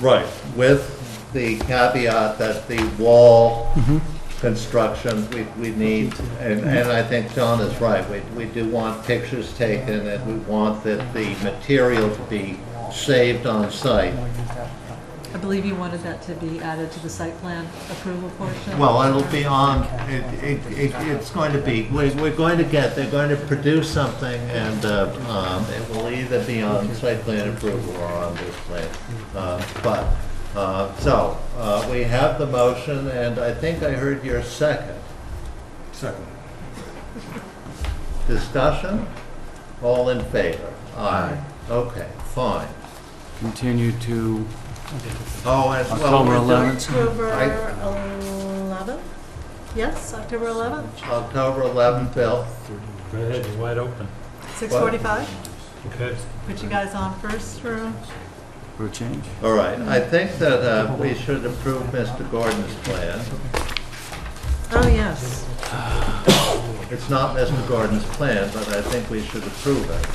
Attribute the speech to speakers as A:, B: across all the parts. A: Right, with the caveat that the wall construction, we, we need, and, and I think John is right, we, we do want pictures taken, and we want that the material to be saved on site.
B: I believe you wanted that to be added to the site plan approval portion?
A: Well, it'll be on, it, it, it- it's going to be, we're, we're going to get, they're going to produce something, and, uh, um, it will either be on site plan approval or on this plan. Uh, But, uh, so, uh, we have the motion, and I think I heard your second.
C: Second.
A: Discussion? All in favor? Aye. Okay, fine.
D: Continue to,
A: Oh, and well,
D: October
A: we're doing-
D: 11th.
B: October
A: I-
B: 11th? Yes, October 11th,
A: October 11th, Bill.
E: Go ahead, you're wide open.
B: 6:45?
E: Okay.
B: Put you guys on first or?
D: for a change.
A: All right, I think that uh, we should approve Mr. Gordon's plan.
B: Oh, yes.
A: It's not Mr. Gordon's plan, but I think we should approve it.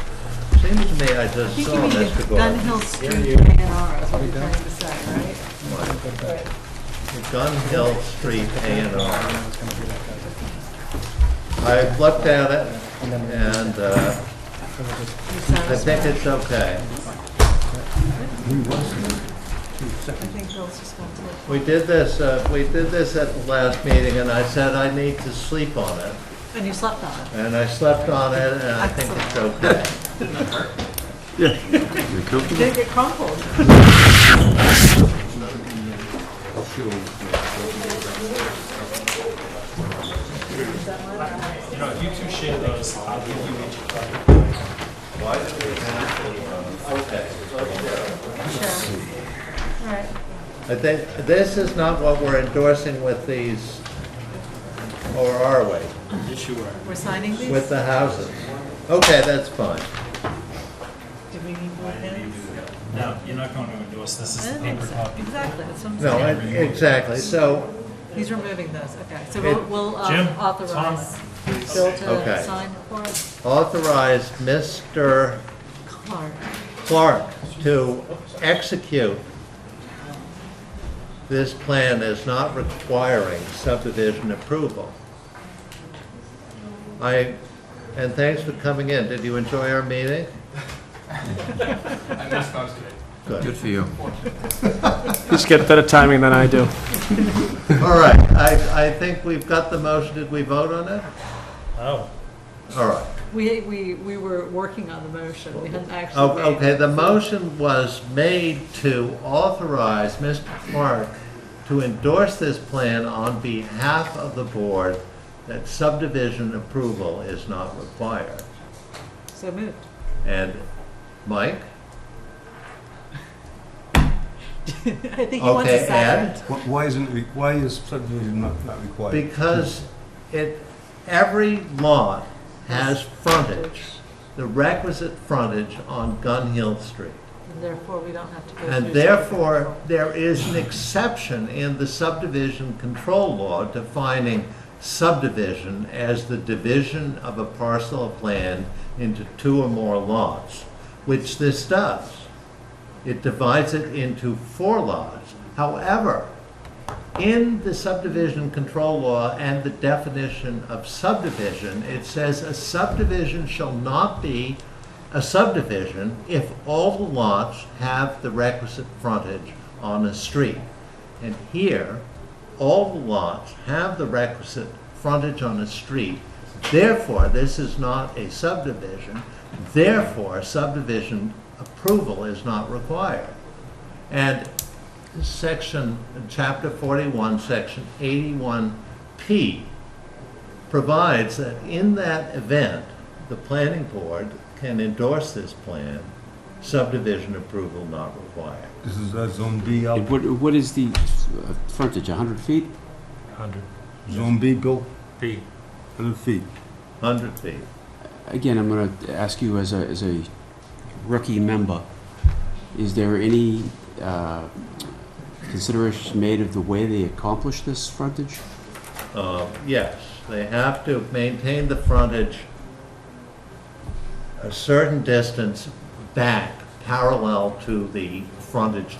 A: Seems to me I
B: I
A: just
B: think you
A: saw
B: mean
A: Mr.
B: the
A: Gordon.
B: Gun Hill Street A and R is what you're trying to say, right?
A: The Gun Hill Street A and R. I've looked at it, and uh,
B: You
A: I think
B: satisfied?
A: it's okay.
B: I think Bill's just going to.
A: We did this, uh, we did this at the last meeting, and I said I need to sleep on it,
B: And you slept on it.
A: and I slept on it, and I think it's okay.
B: You didn't get crumpled.
E: No, if you two share those, I'll give you each.
B: All right.
A: I think, this is not what we're endorsing with these, or are we,
B: We're signing these?
A: with the houses? Okay, that's fine.
B: Do we need more pens?
E: No, you're not going to endorse this
B: I
E: as the
B: don't think
E: paper
B: so.
E: copy.
B: Exactly, that's what I'm
A: No,
B: saying.
A: I- exactly, so,
B: He's removing those, okay. So
A: It-
B: we'll, we'll
E: Jim,
B: uh, authorize
E: Tom,
B: Bill
A: Okay.
B: to sign for us.
A: authorize Mr.
B: Clark.
A: Clark to execute this plan as not requiring subdivision approval. I, and thanks for coming in, did you enjoy our meeting?
F: I missed most of it.
D: Good for you.
G: He's got better timing than I do.
A: All right, I, I think we've got the motion, did we vote on it?
E: Oh,
A: All right.
B: We, we, we were working on the motion, we hadn't actually.
A: O-
B: made
A: Oh, Okay,
B: it.
A: the motion was made to authorize Mr. Clark to endorse this plan on behalf of the board that subdivision approval is not required.
B: So moved.
A: And Mike?
B: I think he wants a
A: Okay, Ed?
B: second.
C: Wh- Why isn't, it re- why is subdivision not, not required?
A: Because it, every lot has frontage, the requisite frontage on Gun Hill Street.
B: And therefore, we don't have to go through.
A: And therefore, there is an exception in the subdivision control law defining subdivision as the division of a parcel of land into two or more lots, which this does. It divides it into four lots. However, in the subdivision control law and the definition of subdivision, it says a subdivision shall not be a subdivision if all the lots have the requisite frontage on a street. And here, all the lots have the requisite frontage on a street. Therefore, this is not a subdivision. Therefore, subdivision approval is not required. And section, chapter 41, section 81P provides that in that event, the planning board can endorse this plan, subdivision approval not required.
C: This is uh, Zone B,
D: And
C: out-
D: What, what is the uh, frontage, 100 feet?
E: 100
C: Zone B, Bill,
E: feet.
C: 100 feet.
A: 100 feet.
D: Again, I'm going to ask you as a, as a rookie member, is there any uh, consideration made of the way they accomplish this frontage?
A: Uh, Yes, they have to maintain the frontage a certain distance back, parallel to the frontage